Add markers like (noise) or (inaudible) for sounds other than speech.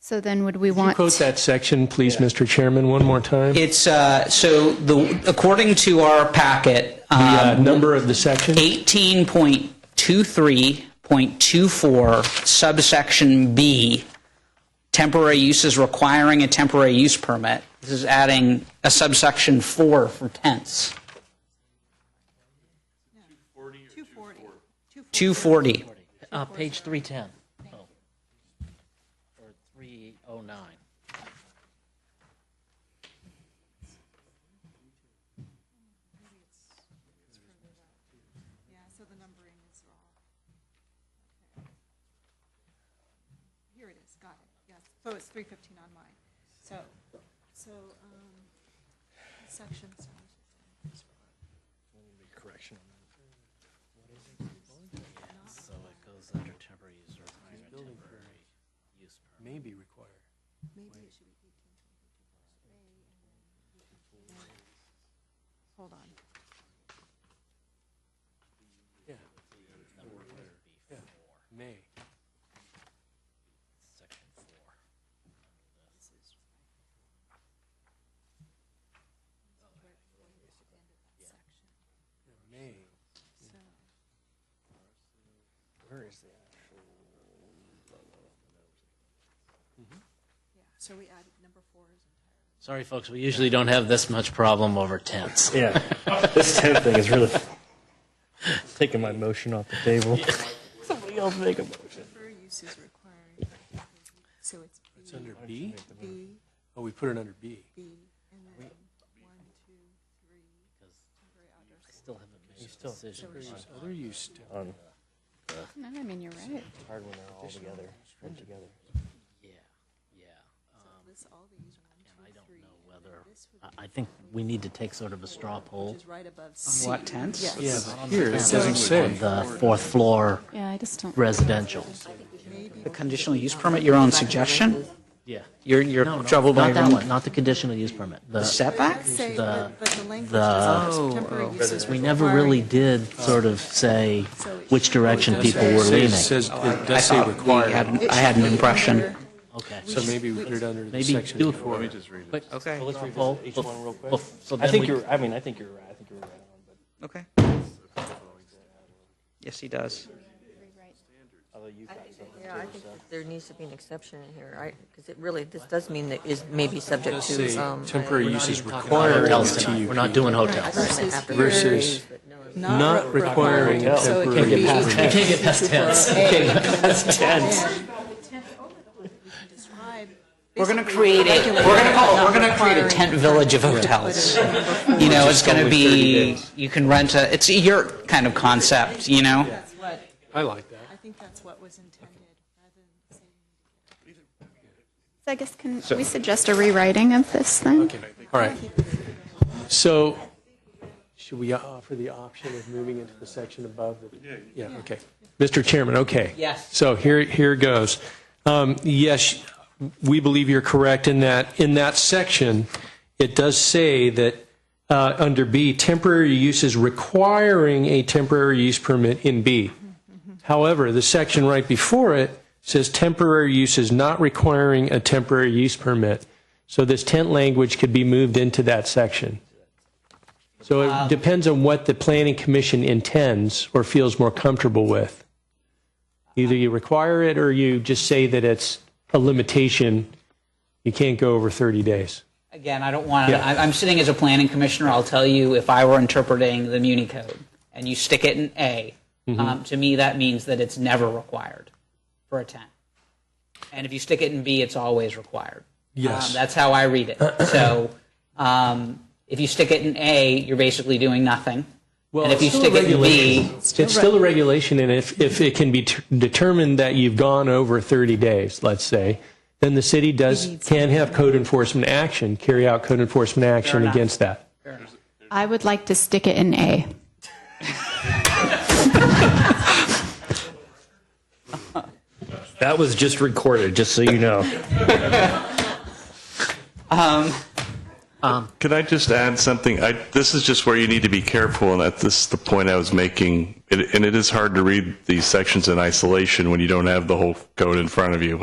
So then would we Could you want? quote that section, please, Mr. Chairman, one more time? The It's, uh, so the, according to our packet, uh, um, number of the section? 18.23.24 subsection B, temporary uses requiring a temporary use permit. This is adding a subsection 4 for tents. 240. Uh, page 310. Oh. Or 309. Yeah, so the numbering is wrong. Okay. Here it is, got it, yes. So it's three fifteen on mine. So, so, um, sections. So it goes under temporary use or minor temporary use permit. may be required. Hold on. Yeah. Yeah, May. section 4. Yeah, May. Where is that? Yeah, so we added number four is Sorry, folks, we usually don't have this much problem over tents. Yeah, this tent thing is really taking my motion off the table. Somebody else make a motion. temporary uses requiring. So it's It's under B? B, Oh, we put it under B. B, and then one, two, three, temporary outdoor. Still haven't made a decision. There's other use to- No, I mean, you're right. Yeah, yeah. So this, all these, one, I two, don't three, know whether, I, I think we need to take sort of a straw poll. which is right above On C. what tents? Yes. Yeah, but here, it doesn't On say. the fourth floor Yeah, I just don't. residential. The conditional use permit, your own suggestion? Yeah. You're, you're No, no, troubled by not your that own one, not the conditional use permit. The setback? Say, the- but but the language the- is temporary uses. We never requiring- really did sort of say So it which should- direction people were It leaning. says, Oh, it I does say thought we had required, an- I had an impression. Okay. so maybe we put it under the Maybe section. do a before. quick, quick, Okay. so let's roll. I So then think we, you're. I mean, I think you're right. I think you're right. on, But Okay. Yes, he does. Yeah, I think that there needs to be an exception in here, because it really, this does mean that is maybe subject It does to, say um. temporary uh, use is we're required not in hotels tonight. We're the not doing hotels. Versus after here Versus is three, but no, it's- Not re- requiring required. So it could temporary be use. either Can't get past tents. describe We're going to create a, we're going to call, we're going to create a tent village of hotels. You know, it's going to be, you can rent a, it's a yurt kind of concept, you know? That's what, I like that. I think that's what was intended, rather than saying. So I guess can we suggest a rewriting of this then? Okay, all right. So, should we offer the option of moving into the section above? Yeah. Yeah, okay. Mr. Chairman, okay. Yes. So here, here goes. Um, Yes, we believe you're correct in that, in that section, it does say that uh, under B, temporary use is requiring a temporary use permit in B. However, the section right before it says temporary use is not requiring a temporary use permit. So this tent language could be moved into that section. So Uh, it depends on what the planning commission intends or feels more comfortable with. Either you require it or you just say that it's a limitation. You can't go over 30 days. Again, I don't want to, Yeah. I'm sitting as a planning commissioner, I'll tell you, if I were interpreting the Muni Code, and you stick it in A, Mm-hmm. um, to me, that means that it's never required for a tent. And if you stick it in B, it's always required. Yes. Um, That's how I read (clears throat) it. So, um, if you stick it in A, you're basically doing nothing. And if you it's still stick it in regulation. B, It's still a regulation, and if, if it can be t- determined that you've gone over 30 days, let's say, then the city does, can have code enforcement action, carry out code enforcement action enough. against that. I would like to stick it in A. that was just recorded, just so you know. Could I just add something? I, this is just where you need to be careful, and that this is the point I was making. It, and it is hard to read these sections in isolation when you don't have the whole code in front of you.